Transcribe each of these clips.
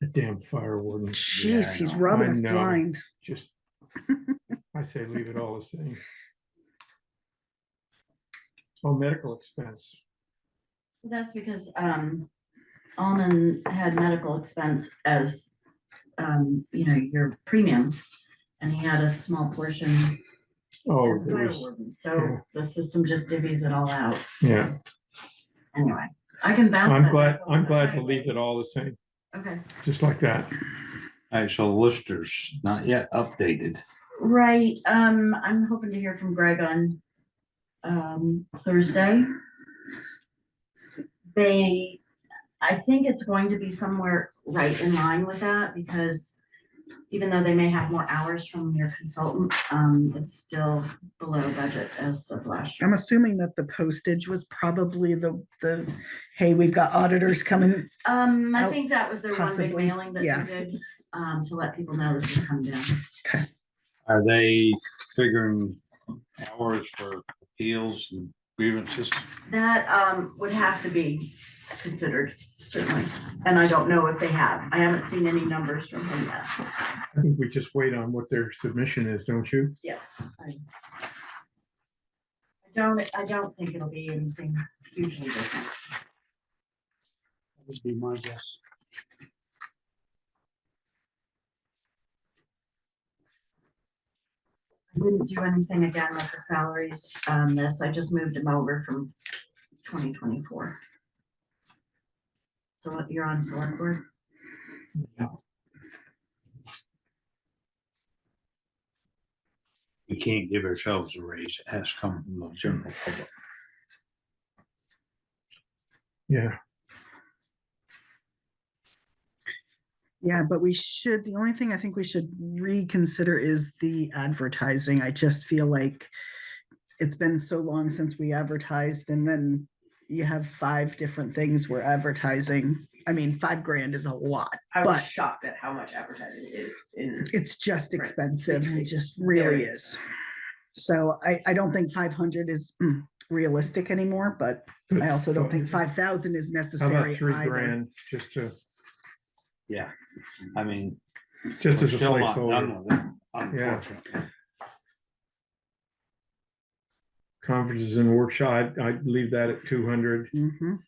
That damn fire warden. Jeez, I he's know, rubbing I us know. blind. Just, I say leave it all the same. Oh, medical expense. That's because, um, Alman had medical expense as, um, you know, your premiums. And he had a small portion Oh, as there fire was, warden, yeah. so the system just divvies it all out. yeah, Anyway, I can bounce. I'm that glad, back I'm over. glad to leave it all the same, Okay, just like that. All right, so listers, not yet updated. right, um, I'm hoping to hear from Greg on, um, Thursday. They, I think it's going to be somewhere right in line with that because even though they may have more hours from your consultant, um, it's still below budget as of last year. I'm assuming that the postage was probably the, the, hey, we've got auditors coming. Um, I Oh, think that was their one big possibly, mailing that yeah. they did, um, to let people know this is coming down. Are they figuring hours for appeals and grievances? That um would have to be considered certainly, and I don't know if they have. I haven't seen any numbers from them yet. I think we just wait on what their submission is, don't you? I don't, I don't think it'll be anything hugely different. That Would be my guess. I Didn't do anything again with the salaries on this. I just moved them over from twenty twenty-four. So what you're on select board? We can't give ourselves a raise. It has to come from the general public. Yeah, Yeah, but we should, the only thing I think we should reconsider is the advertising. I just feel like it's been so long since we advertised and then you have five different things we're advertising. I mean, five grand is a lot. I But- was shocked at how much advertising is in, It's just Right. expensive. It It's- just really very- is. So I, I don't think five hundred is mm, realistic anymore, but I also don't think five thousand is how necessary about three either. grand, just to, Yeah, I mean, we're just as a still not placeholder, done with it, unfortunately. conferences and workshop, I'd- I'd leave that at two hundred. Mhm.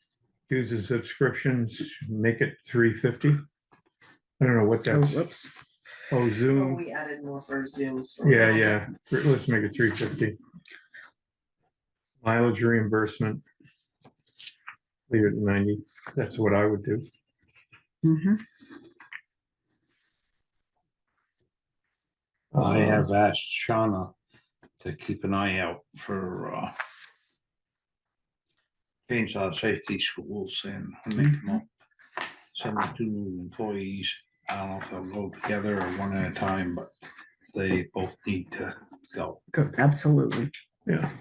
dues and subscriptions, make it three fifty. I don't know what Oh, that's, whoops. oh, oh, Zoom, we added more for Zoom. story. yeah, yeah, Th- let's make it three fifty. Mileage reimbursement. Leave it at ninety, that's what I would do. Mhm. I Uh, have asked Shauna to keep an eye out for, uh, chainsaw safety schools and make them up. Send them two new employees. I don't know if they'll go together or one at a time, but they both need to go. Go- Absolutely. Yeah,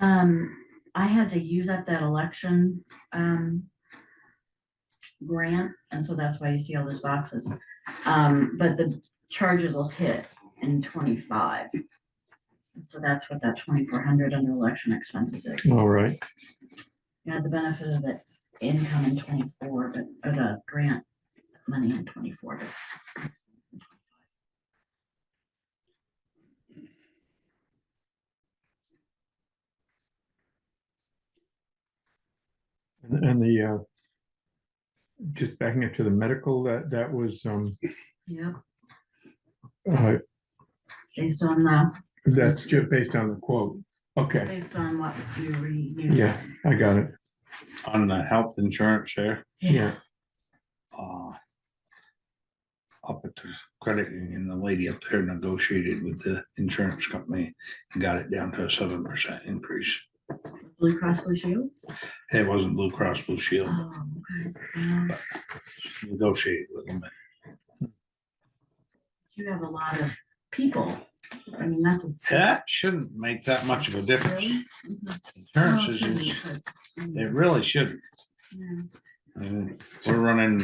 Um, I had to use up that election, um, grant, and so that's why you see all those boxes. Um, but the charges will hit in twenty-five. And So that's what that twenty-four hundred under election expenses is. Um, all right, You had the benefit of the income in twenty-four, but, or the grant money in twenty-four. but- and and the, uh, just backing up to the medical, that, that was, um, Yep, uh, based on the, that's just based on the quote. Okay, based on what you renewed. yeah, I got it, On the health insurance there, yeah, uh, up at the credit union, the lady up there negotiated with the insurance company and got it down to a seven percent increase. Blue Cross Blue Shield? It wasn't Blue Cross Blue Shield. Oh, okay. Um, negotiate with them. You have a lot of people. I mean, that's. a- That shouldn't make that much of a difference. Really? Mhm. Oh, Insurances, sure you is- could. Mm, it really shouldn't. yeah. I mean, We're running